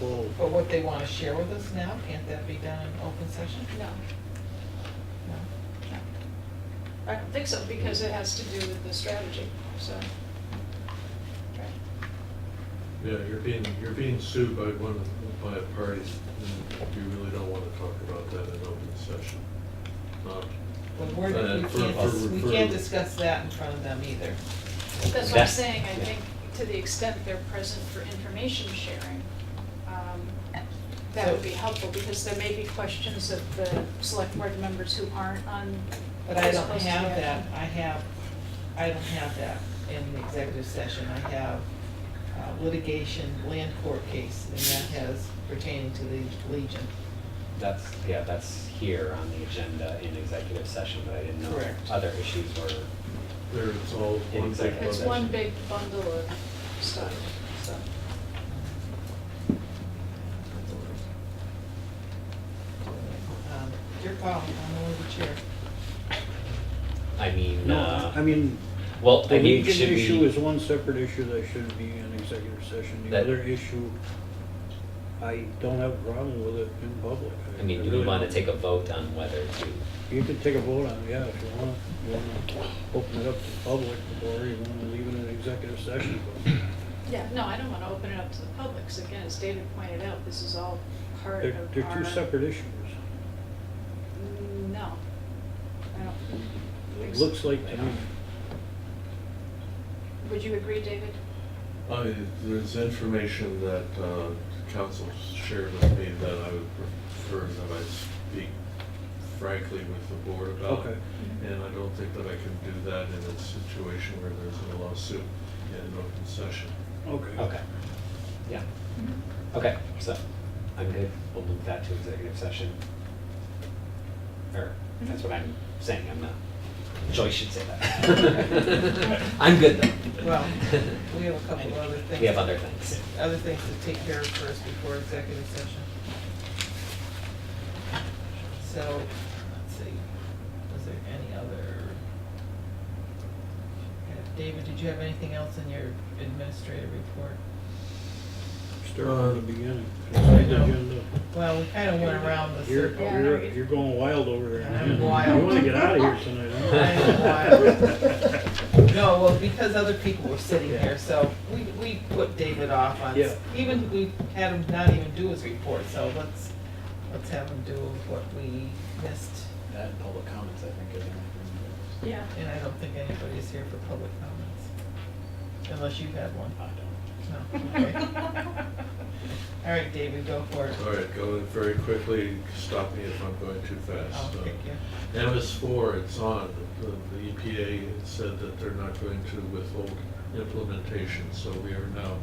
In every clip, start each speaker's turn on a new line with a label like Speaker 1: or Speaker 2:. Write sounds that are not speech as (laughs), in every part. Speaker 1: Oh,
Speaker 2: But what they want to share with us now, can't that be done in open session?
Speaker 3: No,
Speaker 2: No?
Speaker 3: I don't think so, because it has to do with the strategy, so.
Speaker 4: Yeah, you're being, you're being sued by one, by a party, and you really don't want to talk about that in open session. Um, Not-
Speaker 2: But we're, we
Speaker 4: Uh, for-
Speaker 2: can't,
Speaker 4: for-
Speaker 2: we
Speaker 4: for-
Speaker 2: can't discuss that in front of them either.
Speaker 3: That's what I'm
Speaker 1: That's-
Speaker 3: saying, I
Speaker 1: yeah.
Speaker 3: think to the extent they're present for information sharing, um, that would be helpful, because there may be questions of the select board members who aren't on.
Speaker 2: But I don't
Speaker 3: supposed to
Speaker 2: have
Speaker 3: be on.
Speaker 2: that, I have, I don't have that in the executive session. I have uh, litigation, land court case, and that has pertaining to the Legion.
Speaker 1: That's, yeah, that's here on the agenda in executive session, but I didn't know
Speaker 2: Correct.
Speaker 1: other issues were,
Speaker 4: There, it's all one big
Speaker 1: Exactly.
Speaker 3: It's
Speaker 4: bubble.
Speaker 3: one big bundle of stuff, so.
Speaker 2: Um, Your call, I'm only the chair.
Speaker 1: I mean,
Speaker 5: No, I
Speaker 1: uh,
Speaker 5: mean,
Speaker 1: well, I
Speaker 5: the
Speaker 1: mean,
Speaker 5: Legion
Speaker 1: should
Speaker 5: issue is
Speaker 1: we,
Speaker 5: one separate issue that shouldn't be in executive session. The
Speaker 1: That-
Speaker 5: other issue, I don't have a problem with it in public.
Speaker 1: I mean, do we
Speaker 5: really
Speaker 1: want to
Speaker 5: don't.
Speaker 1: take a vote on whether to,
Speaker 5: You can take a vote on it, yeah, if you want. You want to open it up to the public or you want to leave it in executive session.
Speaker 3: Yeah, no, I don't want to open it up to the public, because again, as David pointed out, this is all part of
Speaker 5: They're,
Speaker 3: our.
Speaker 5: they're two separate issues.
Speaker 3: Mm, No, I don't.
Speaker 5: It looks like to me.
Speaker 3: Would you agree, David?
Speaker 4: I mean, there's information that uh, council shared with me that I would prefer that I speak frankly with the board about.
Speaker 5: Okay.
Speaker 3: Mm-hmm.
Speaker 4: And I don't think that I can do that in a situation where there's a lawsuit in an open session.
Speaker 5: Okay.
Speaker 1: okay, yeah. Okay, so I'm good, we'll move that to executive session. Or, that's what I'm saying, I'm not, Joyce should say that. (laughs) I'm good though.
Speaker 2: Well, we have a couple of other things.
Speaker 1: We have other things.
Speaker 2: Other things to take care of first before executive session. So, let's see, was there any other? Uh, David, did you have anything else in your administrative report?
Speaker 5: Start from the beginning.
Speaker 2: Uh, I know.
Speaker 5: Agenda.
Speaker 2: Well, we kind of went around the
Speaker 5: You're,
Speaker 2: circle.
Speaker 3: Yeah.
Speaker 5: you're, you're going wild over there.
Speaker 2: I'm
Speaker 5: man.
Speaker 2: wild.
Speaker 5: You wanna get out of here tonight,
Speaker 2: (laughs)
Speaker 5: huh?
Speaker 2: I'm No, well, because other people were sitting here, so we, we put David off on,
Speaker 5: Yeah.
Speaker 2: even, we had him not even do his report, so let's, let's have him do what we missed.
Speaker 6: That and public comments, I think, are the only
Speaker 3: (laughs) Yeah.
Speaker 2: And I don't think anybody's here for public comments, unless you have one.
Speaker 6: I don't.
Speaker 3: (laughs)
Speaker 2: No, okay. All right, David, go for it.
Speaker 4: All right, going very quickly, stop me if I'm going too
Speaker 2: I'll
Speaker 3: Oh,
Speaker 4: fast.
Speaker 2: kick you.
Speaker 4: MS four, it's on, The- the EPA said that they're not going to withhold implementation, so we are now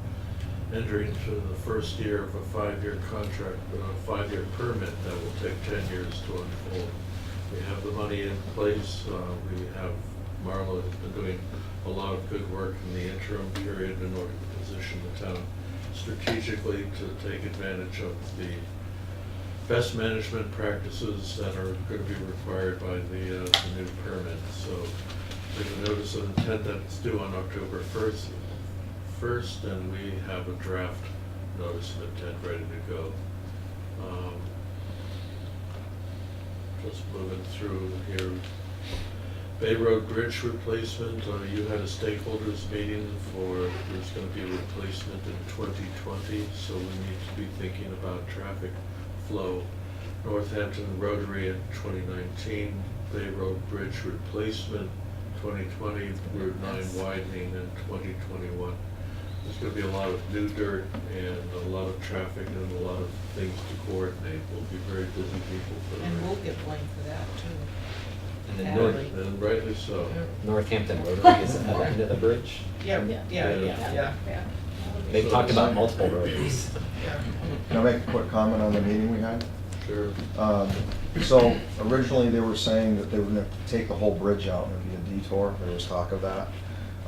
Speaker 4: entering into the first year of a five-year contract, a five-year permit that will take ten years to unfold. We have the money in place, uh, we have, Marla has been doing a lot of good work in the interim period in order to position the town strategically to take advantage of the best management practices that are going to be required by the, uh, the new permit. So there's a notice of intent that's due on October first, first, and we have a draft notice of intent ready to go. Um, Just moving through here. Bay Road Bridge replacement, uh, you had a stakeholders meeting for, there's gonna be a replacement in twenty twenty, so we need to be thinking about traffic flow. Northampton Rotary in twenty nineteen, Bay Road Bridge replacement, twenty twenty, Route nine widening in twenty twenty-one. There's gonna be a lot of new dirt and a lot of traffic and a lot of things to coordinate. We'll be very busy people for the.
Speaker 2: And
Speaker 4: rest.
Speaker 2: we'll get blamed for that too.
Speaker 1: And then
Speaker 2: Nor-
Speaker 1: North,
Speaker 2: Natalie.
Speaker 4: And rightly so.
Speaker 1: Northampton Rotary is at the end of the bridge.
Speaker 2: Yeah,
Speaker 3: Yeah.
Speaker 2: yeah,
Speaker 4: Yeah.
Speaker 2: yeah,
Speaker 3: Yeah.
Speaker 1: They've talked about multiple rotaries.
Speaker 2: yeah.
Speaker 7: Can I make a quick comment on the meeting we had?
Speaker 4: Sure.
Speaker 7: Um, So originally, they were saying that they were gonna take the whole bridge out and it'd be a detour, there was talk of that.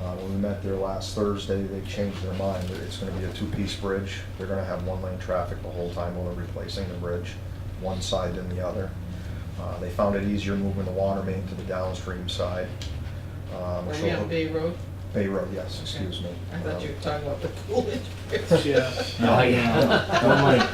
Speaker 7: Uh, When we met there last Thursday, they changed their mind, that it's gonna be a two-piece bridge. They're gonna have one-lane traffic the whole time while they're replacing the bridge, one side than the other. Uh, They found it easier moving the water main to the downstream side. Um,
Speaker 2: Were
Speaker 7: so-
Speaker 2: we on Bay Road?
Speaker 7: Bay Road, yes,
Speaker 2: Okay.
Speaker 7: excuse me.
Speaker 2: I thought you
Speaker 7: Um, (laughs)
Speaker 2: were talking about the Coolidge Bridge.
Speaker 5: Yeah.
Speaker 1: Oh, yeah.
Speaker 7: No, no, no,